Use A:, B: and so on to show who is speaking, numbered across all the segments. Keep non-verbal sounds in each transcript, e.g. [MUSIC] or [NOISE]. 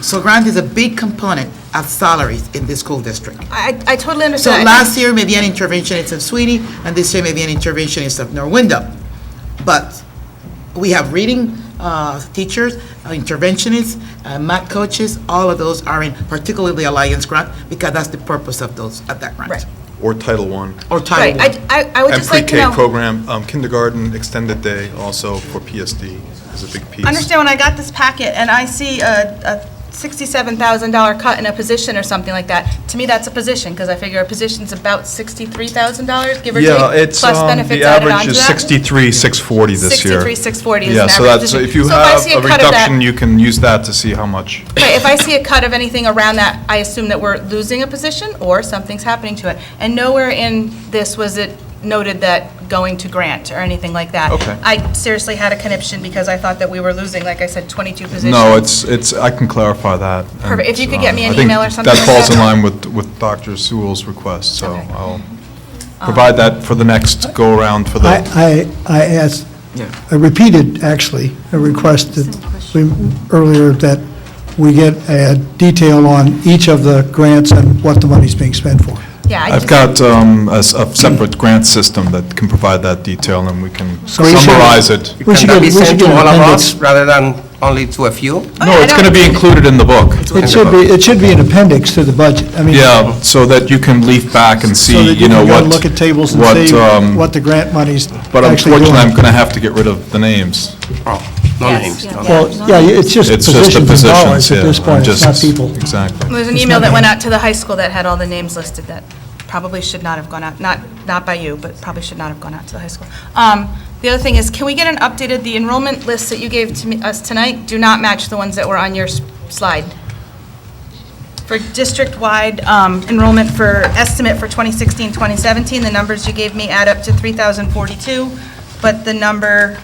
A: So grant is a big component of salaries in this school district.
B: I, I totally
A: So
B: understand.
A: last year, maybe an interventionist of Sweeney, and this year, maybe an interventionist of Norwindo. But we have reading uh, teachers, uh, interventionists, uh, math coaches, all of those are in particularly the Alliance grant, because that's the purpose of those, of that grant.
B: Right.
C: Or Title One
A: Or
B: Right,
A: Title I.
B: I, I- I would
C: And
B: just like to
C: pre-K
B: know,
C: program, um, kindergarten, extended day also for PSD is a big piece.
B: understand when I got this packet and I see a, a $67,000 cut in a position or something like that, to me, that's a position, because I figure a position's about $63,000, give or take.
C: Yeah, it's,
B: plus
C: um, the
B: benefits added
C: average
B: onto
C: is
B: that.
C: 63, 640 this year.
B: 63,640 is
C: Yeah,
B: an
C: so
B: average
C: that's, so
B: position.
C: if you
B: So if I
C: have
B: see a
C: a
B: cut of that-
C: reduction, you can use that to see how much.
B: Right, if I see a cut of anything around that, I assume that we're losing a position or something's happening to it. And nowhere in this was it noted that going to grant or anything like that.
C: Okay.
B: I seriously had a conniption because I thought that we were losing, like I said, 22 positions.
C: No, it's, it's, I can clarify that. and,
B: Perfect. If you could get me
C: uh,
B: an
C: I think
B: email or something
C: That
B: like
C: falls in
B: that.
C: line with, with Dr. Sewell's request, so
B: Okay. Um,
C: I'll provide that for the next go-around for the
D: I, I, I asked,
A: Yeah.
D: I repeated, actually, a request that we, earlier, that we get a detail on each of the grants and what the money's being spent for.
B: Yeah, I
C: I've
B: just,
C: got um, a s- a separate grant system that can provide that detail, and we can
D: So we should-
C: summarize it.
B: Oh,
D: We should
E: Can that
D: get,
E: be
D: we should
E: sent
D: get
E: to
D: an
E: all of us
D: appendix.
E: rather than only to a few?
C: No, it's going to be included in the book.
D: It should be, it should be an appendix to the budget. I mean,
C: Yeah, so that you can leaf back and
D: so
C: see,
D: that
C: you
D: you
C: know,
D: can
C: what...
D: go and look at tables and
C: what,
D: see
C: um,
D: what the grant money's
C: But
D: actually
C: unfortunately, I'm
D: doing.
C: going to have to get rid of the names.
E: Oh, no names. no.
D: Well, yeah, it's just
C: It's just the
D: positions and dollars
C: positions, yeah.
D: at this
C: I'm
D: point, it's not
C: just-
D: people.
C: Exactly.
B: there's an
D: It's
B: email
D: not
B: that went
D: me.
B: out to the high school that had all the names listed that probably should not have gone out, not, not by you, but probably should not have gone out to the high school. Um, The other thing is, can we get an updated, the enrollment lists that you gave to me- us tonight do not match the ones that were on your s- slide. For district-wide um, enrollment for, estimate for 2016, 2017, the numbers you gave me add up to 3,042, but the number,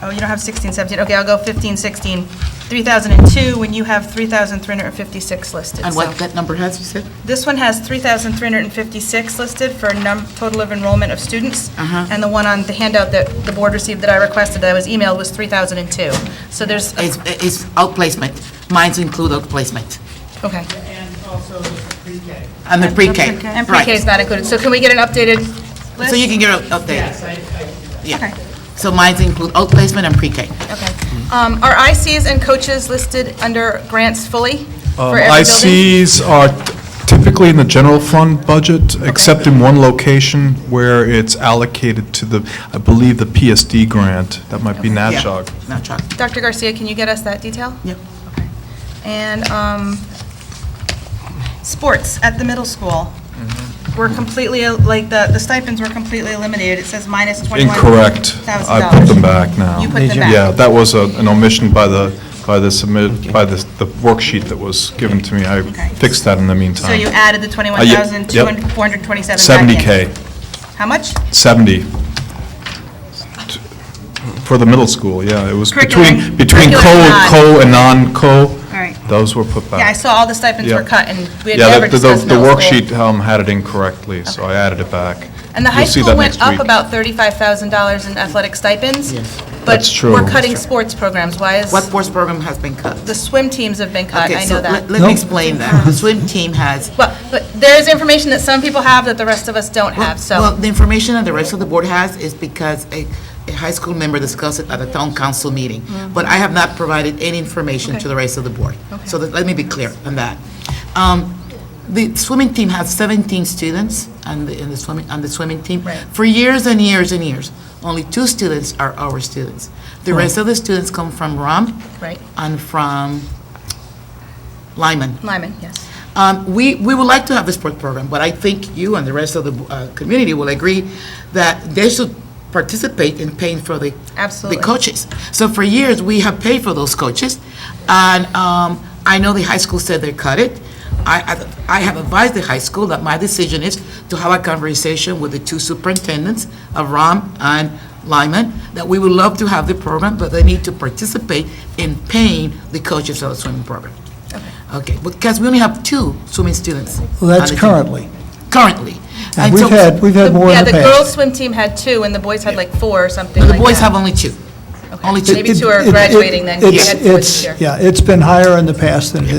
B: oh, you don't have 16, 17, okay, I'll go 15, 16, 3,002, when you have 3,356 listed.
A: And
B: so-
A: what that number has, you said?
B: this one has 3,356 listed for a num, total of enrollment of students.
A: Uh-huh.
B: And the one on the handout that the board received that I requested, that I was emailed, was 3,002. So there's, a-
A: It's, it's outplacement. Mines include outplacement.
B: okay.
A: And the pre-K.
B: And pre-K is
A: Right.
B: not included. So can we get an updated
A: So you
B: list?
A: can get an update.
B: Okay.
A: Yeah. So mines include outplacement and pre-K.
B: Okay. Um, Are ICs and coaches listed under grants fully
C: Um,
B: for every building?
C: ICs are typically in the general fund budget, except in one location where it's allocated to the, I believe, the PSD grant. That might be
A: Yeah.
C: NATCHOG.
A: Not chalk.
B: Dr. Garcia, can you get us that detail?
A: Yeah.
B: Okay. And um, sports at the middle school
C: Mm-hmm.
B: were completely, like, the the stipends were completely eliminated. It says minus
C: Incorrect.
B: $21,000.
C: I put them back now.
B: You put them back.
C: Yeah, that was a- an omission by the, by the submit, by the the worksheet that was given to me. I fixed that in the meantime.
B: So you added the
C: Uh, yep.
B: 21,427 back in.
C: 70K,
B: How much?
C: 70. For the middle school, yeah, it was between,
B: Curriculum.
C: between
B: Curriculum
C: co,
B: not.
C: co and non-co.
B: right.
C: Those were put back.
B: Yeah, I saw all the stipends
C: Yeah.
B: were cut, and we had
C: Yeah,
B: never
C: the- the-
B: discussed middle school.
C: The worksheet um, had it incorrectly, so I added it back.
B: And the high
C: You'll see
B: school
C: that
B: went
C: next
B: up
C: week.
B: about $35,000 in athletic stipends.
C: That's true.
B: But we're cutting sports programs. Why is,
A: What sports program has been cut?
B: the swim teams have been cut,
A: Okay,
B: I
A: so
B: know that.
A: let- Let me explain that.
B: [LAUGHS]
A: The swim team has
B: Well, but there is information that some people have that the rest of us don't have,
A: Well,
B: so,
A: the information that the rest of the board has is because a, a high school member discussed it at a town council meeting.
B: Mm.
A: But I have not provided any information to the rest of the board. So that- let me be clear on that. Um, The swimming team has 17 students on the, in the swimming, on the swimming team. For years and years and years, only two students are our students. The rest of the students come from Rom
B: Hmm. right.
A: and from Lyman.
B: Lyman, yes.
A: Um, We, we would like to have a sport program, but I think you and the rest of the uh, community will agree that they should participate in paying for the.
B: Absolutely.
A: The coaches. So for years, we have paid for those coaches, and um, I know the high school said they cut it. I, I I have advised the high school that my decision is to have a conversation with the two superintendents of Ram and Lyman, that we would love to have the program, but they need to participate in paying the coaches of the swimming program. Okay, because we only have two swimming students.
D: Well, that's
A: on the team.
D: currently.
A: Currently.
D: And
A: And
D: we've
A: so-
D: had, we've had more
B: Yeah,
D: in the
B: the
D: past.
B: girls' swim team had two, and the boys had like four or something
A: The
B: like
A: boys have
B: that.
A: only two. Only two.
B: Maybe
D: It-
B: two are
D: it- it-
B: graduating then, 'cause you
D: it's-
B: had four this
D: it's-
B: year.
D: Yeah, it's been higher in the past than it